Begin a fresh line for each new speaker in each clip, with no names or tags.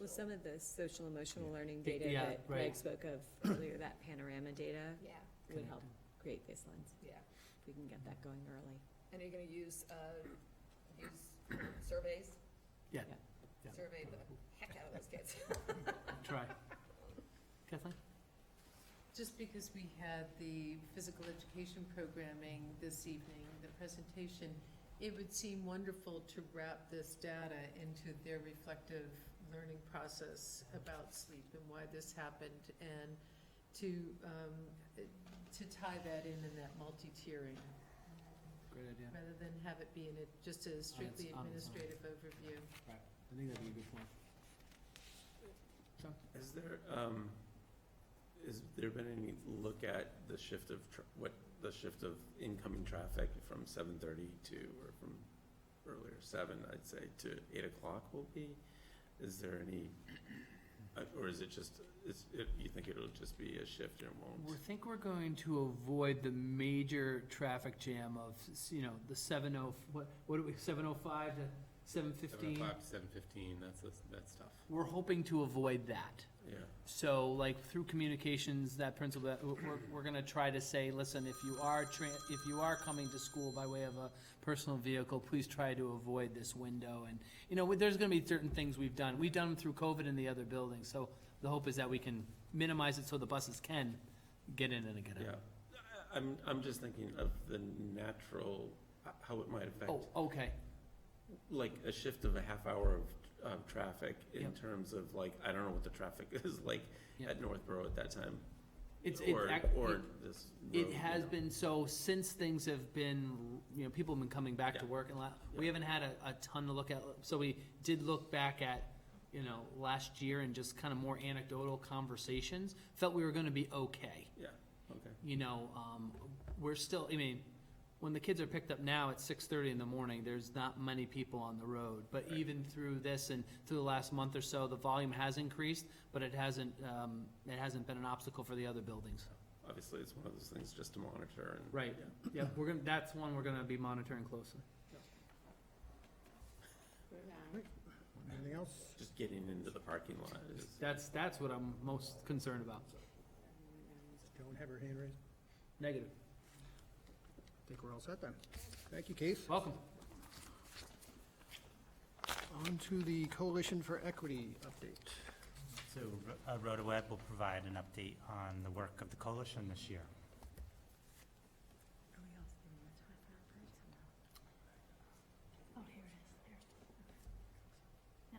Well, some of the social emotional learning
Th-
data
yeah,
that Meg
right.
spoke of earlier, that panorama data
Yeah,
would help create baselines,
yeah.
if we can get that going early.
And are you gonna use, uh, use surveys?
Yeah. Yeah.
Survey the heck out of those kids.
Try. Kathleen?
Just because we had the physical education programming this evening, the presentation, it would seem wonderful to wrap this data into their reflective learning process about sleep and why this happened, and to, um, to tie that in in that multi-tiering,
Great idea.
rather than have it be in a, just a strictly
on its own.
administrative overview.
I think that'd be a good point. John?
Is there, um, has there been any look at the shift of, tr- what, the shift of incoming traffic from seven thirty to, or from earlier seven, I'd say, to eight o'clock will be? Is there any, uh, or is it just, is, it- you think it'll just be a shift and it
We
won't?
think we're going to avoid the major traffic jam of, s- you know, the seven oh, what, what do we, seven oh five to seven fifteen?
seven oh fifteen, that's, that's tough.
We're hoping to avoid that.
Yeah,
So like through communications, that principle, that we're, we're- we're gonna try to say, listen, if you are tra- if you are coming to school by way of a personal vehicle, please try to avoid this window and, you know, there's gonna be certain things we've done. We've done them through COVID in the other buildings, so the hope is that we can minimize it so the buses can get in and get
yeah.
out.
I- I'm, I'm just thinking of the natural, h- how it might affect.
Oh, okay,
like a shift of a half hour of, of traffic in
Yep.
terms of like, I don't know what the traffic is like
Yep.
at Northborough at that time.
it's, it's.
Or,
ac-
or
it-
this road,
It
you
has
know.
been, so since things have been, you know, people have been coming back to
Yeah.
work and la, we
Yeah.
haven't had a, a ton to look at. So we did look back at, you know, last year and just kind of more anecdotal conversations, felt we were gonna be okay.
Okay,
You know, um, we're still, I mean, when the kids are picked up now at six thirty in the morning, there's not many people on the road. But
Right.
even through this and through the last month or so, the volume has increased, but it hasn't, um, it hasn't been an obstacle for the other buildings.
obviously, it's one of those things just to monitor and.
Right. Yeah, we're gonna, that's one we're gonna be monitoring closely.
Anything else?
Just getting into the parking lot is,
That's, that's what I'm most concerned about.
Joan have her hand raised.
Negative.
I think we're all set then. Thank you, Keith.
Welcome.
On to the Coalition for Equity update.
So uh, RotaWeb will provide an update on the work of the coalition this year.
Oh, here it is, there's. No,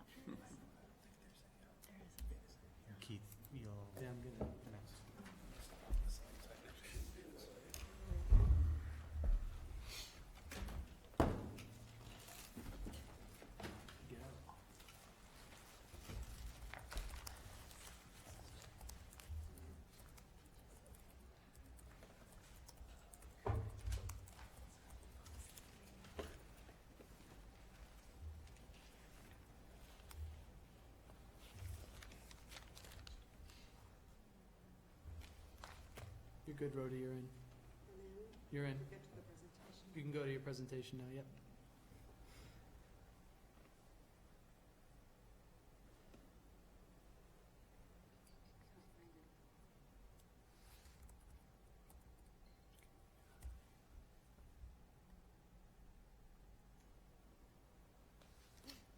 there is.
Keith, you'll.
Yeah, I'm good.
next.
You're good, Rhoda, you're in. You're in. You can go to your presentation now, yep.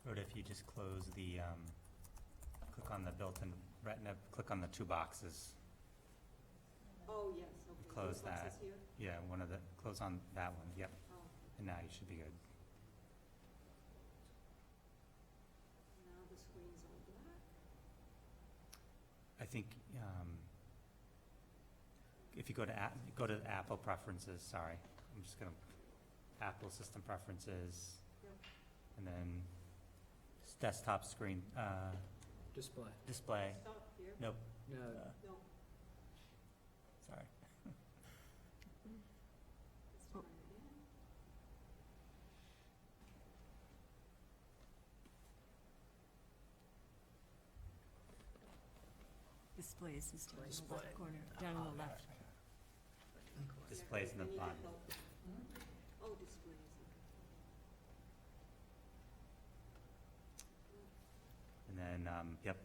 Rhoda, if you just close the, um, click on the built-in retina, click on the two boxes.
Oh, yes,
Close that. Yeah, one of the, close on that one, yep.
Oh.
And now you should be good.
now the screen's all black.
I think, um, if you go to app, go to Apple preferences, sorry, I'm just gonna, Apple system preferences.
Yep.
And then s- desktop screen, uh,
Display.
display,
Stop here,
No,
uh,
no,
sorry.
let's try it again.
Displays is down in the
Display.
left corner, down in the
Oh,
left.
Displays in the
I need
bottom.
help. Oh, displays, okay.
And then, um, yep,